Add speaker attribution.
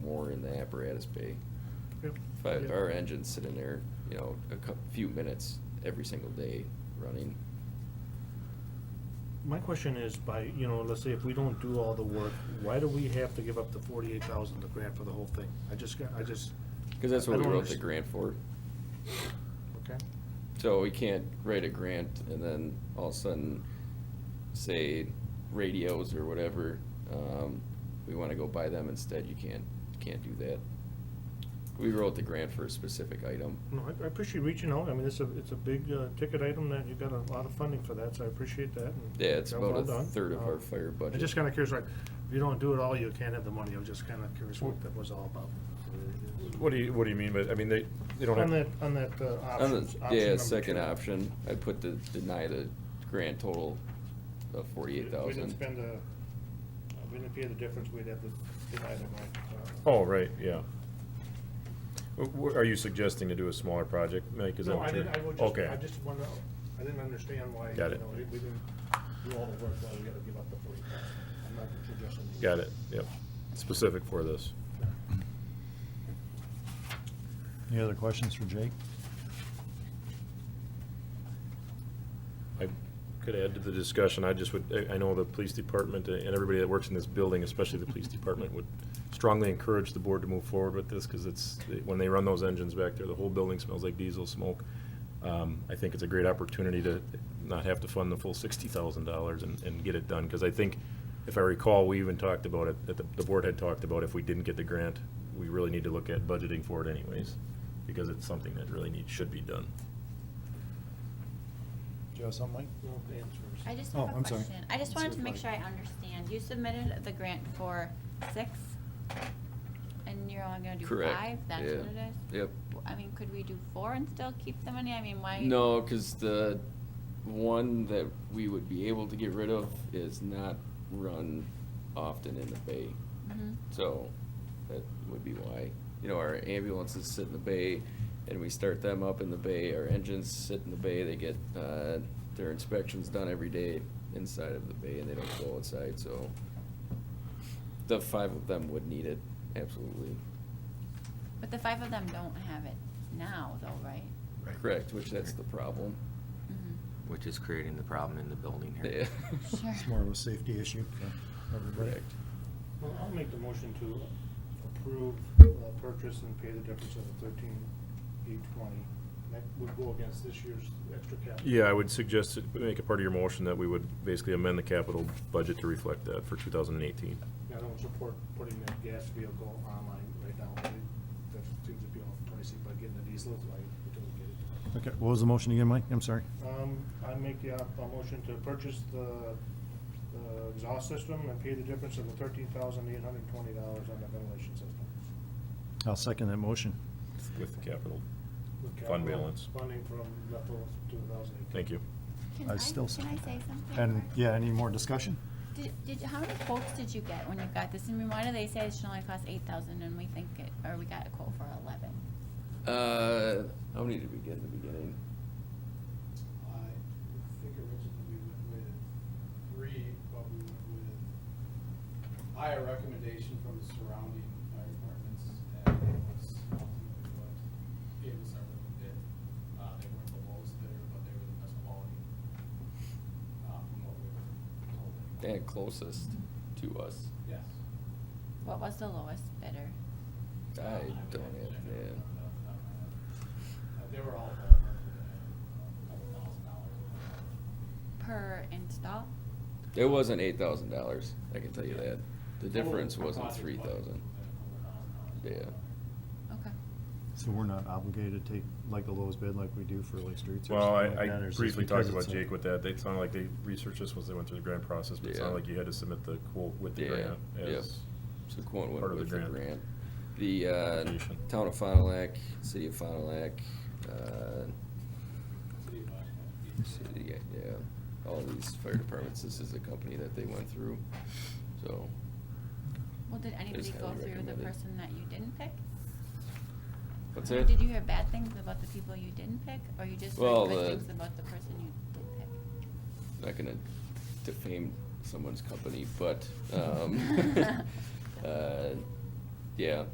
Speaker 1: the apparatus bay.
Speaker 2: Yeah.
Speaker 1: If, I- if
Speaker 2: Yeah.
Speaker 1: our engine's sitting there, you know, a cou- few minutes every single day running,
Speaker 2: My question is by, you know, let's say if we don't do all the work, why do we have to give up the forty-eight thousand, the grant for the whole thing? I just, got- I just,
Speaker 1: cause that's
Speaker 2: I
Speaker 1: what we
Speaker 2: don't
Speaker 1: wrote the
Speaker 2: underst-
Speaker 1: grant for.
Speaker 2: okay,
Speaker 1: So we can't write a grant and then all of a sudden say radios or whatever, um, we wanna go buy them instead, you can't, you can't do that. We wrote the grant for a specific item.
Speaker 2: no, I- I appreciate reaching out, I mean, it's a, it's a big uh, ticket item that you got a lot of funding for that, so I appreciate that. and
Speaker 1: Yeah, it's
Speaker 2: job
Speaker 1: about
Speaker 2: well
Speaker 1: a
Speaker 2: done.
Speaker 1: third of
Speaker 2: Um,
Speaker 1: our fire budget.
Speaker 2: I'm just kinda curious, like, if you don't do it all, you can't have the money, I'm just kinda curious what that was all about.
Speaker 3: What do you, what do you mean by, I mean, they, they don't
Speaker 2: On that,
Speaker 3: have,
Speaker 2: on that uh,
Speaker 1: On the-
Speaker 2: options, option
Speaker 1: Yeah,
Speaker 2: number
Speaker 1: second
Speaker 2: two.
Speaker 1: option, I put the, deny the grand total of forty-eight
Speaker 2: We didn't
Speaker 1: thousand.
Speaker 2: spend a, uh, we didn't pay the difference, we'd have to deny the right.
Speaker 3: oh, right, yeah. W- w- Are you suggesting to do a smaller project, Mike, is that
Speaker 2: No, I
Speaker 3: what you're?
Speaker 2: didn't, I would just,
Speaker 3: Okay.
Speaker 2: I just wanna, I didn't understand why, you know,
Speaker 3: Got it.
Speaker 2: we we didn't do all the work, why we gotta give up the forty thousand. I'm not suggesting. we-
Speaker 3: Got it, yep, specific for this.
Speaker 4: Any other questions for Jake?
Speaker 3: I could add to the discussion, I just would, I- I know the police department and everybody that works in this building, especially the police department, would strongly encourage the board to move forward with this, because it's, when they run those engines back there, the whole building smells like diesel smoke. Um, I think it's a great opportunity to not have to fund the full sixty thousand dollars and, and get it done, because I think, if I recall, we even talked about it, that the, the board had talked about if we didn't get the grant, we really need to look at budgeting for it anyways, because it's something that really needs, should be done.
Speaker 4: Do you have something,
Speaker 2: No answers.
Speaker 5: I just
Speaker 4: Oh,
Speaker 5: have a
Speaker 4: I'm sorry.
Speaker 5: question. I just wanted to make sure I understand. You submitted the grant for six, and you're only gonna do
Speaker 1: Correct.
Speaker 5: five? That's
Speaker 1: yeah.
Speaker 5: what it is?
Speaker 1: Yep.
Speaker 5: W- I mean, could we do four and still keep the money? I mean, why?
Speaker 1: No, cause the one that we would be able to get rid of is not run often in the bay.
Speaker 5: Mhm.
Speaker 1: So that would be why, you know, our ambulances sit in the bay and we start them up in the bay. Our engines sit in the bay. They get, uh, their inspections done every day inside of the bay and they don't go outside, so. The five of them would need it, absolutely.
Speaker 5: But the five of them don't have it now, though, right?
Speaker 1: Correct, which that's the problem.
Speaker 5: Mhm.
Speaker 6: Which is creating the problem in the building
Speaker 1: Yeah.
Speaker 6: here.
Speaker 5: Sure.
Speaker 4: It's more of a safety issue for everybody.
Speaker 1: Correct.
Speaker 2: Well, I'll make the motion to approve uh, purchase and pay the difference of the thirteen eight twenty. That would go against this year's extra capital.
Speaker 3: Yeah, I would suggest, that we make a part of your motion that we would basically amend the capital budget to reflect that for 2018.
Speaker 2: I don't support putting that gas vehicle online right now. I think That seems to be all pricey, but getting a diesel, I don't get it.
Speaker 4: Okay, what was the motion again, Mike? I'm sorry.
Speaker 2: Um, I make the, op- a motion to purchase the, the exhaust system and pay the difference of the thirteen thousand eight hundred and twenty dollars on the ventilation system.
Speaker 4: I'll second that motion.
Speaker 3: With the capital.
Speaker 2: With
Speaker 3: Fund
Speaker 2: capital
Speaker 3: balance.
Speaker 2: uh, Funding from leftover two thousand eight.
Speaker 3: Thank you.
Speaker 5: Can
Speaker 4: I
Speaker 5: I, can
Speaker 4: still
Speaker 5: I
Speaker 4: s-
Speaker 5: say something?
Speaker 4: And,
Speaker 5: first?
Speaker 4: yeah, any more discussion?
Speaker 5: Did, did, how many quotes did you get when you got this? I mean, why do they say it should only cost eight thousand and we think it, or we got a quote for eleven?
Speaker 1: Uh, how many did we get in the beginning?
Speaker 7: I think originally we went with three, but we went with higher recommendation from the surrounding fire departments, and it was ultimately what gave us our little bid. Uh, they weren't the lowest bidder, but they were the best quality, uh, from what we were told. anyway.
Speaker 1: And closest to us.
Speaker 7: Yes.
Speaker 5: What was the lowest bidder?
Speaker 1: I
Speaker 7: Uh,
Speaker 1: don't
Speaker 7: would actually-
Speaker 1: have,
Speaker 7: I don't
Speaker 1: yeah.
Speaker 7: remember off the top of my head. Uh, They were all ballpark within a couple thousand dollars.
Speaker 5: Per install?
Speaker 1: It wasn't eight thousand dollars, I can tell you that. The difference
Speaker 7: Total
Speaker 1: wasn't
Speaker 7: project
Speaker 1: three thousand.
Speaker 7: budget,
Speaker 1: Yeah.
Speaker 5: Okay.
Speaker 4: So we're not obligated to take like the lowest bid like we do for like streets or
Speaker 3: Well, I,
Speaker 4: something like that?
Speaker 3: I
Speaker 4: or is this
Speaker 3: briefly
Speaker 4: because
Speaker 3: talked about
Speaker 4: it's a-
Speaker 3: Jake with that. They sounded like they researched this once they went through the grant process, but it sounded
Speaker 1: Yeah.
Speaker 3: like you had to submit the quote with the
Speaker 1: Yeah,
Speaker 3: grant
Speaker 1: yep.
Speaker 3: as
Speaker 1: So Quan
Speaker 3: Part
Speaker 1: went
Speaker 3: of the
Speaker 1: with the
Speaker 3: grant.
Speaker 1: grant. The, uh,
Speaker 3: Foundation.
Speaker 1: town of Fond du Lac, city of Fond du Lac, uh,
Speaker 7: City of Oshkosh.
Speaker 1: city, yeah, all these fire departments, this is the company that they went through, so.
Speaker 5: Well, did anybody
Speaker 1: highly
Speaker 5: go through the
Speaker 1: recommended.
Speaker 5: person that you didn't pick?
Speaker 1: What's
Speaker 5: Or
Speaker 1: that?
Speaker 5: Did you hear bad things about the people you didn't pick, or you just
Speaker 1: Well,
Speaker 5: heard
Speaker 1: the-
Speaker 5: good things about the person you did pick?
Speaker 1: not gonna defame someone's company, but, um, uh, yeah,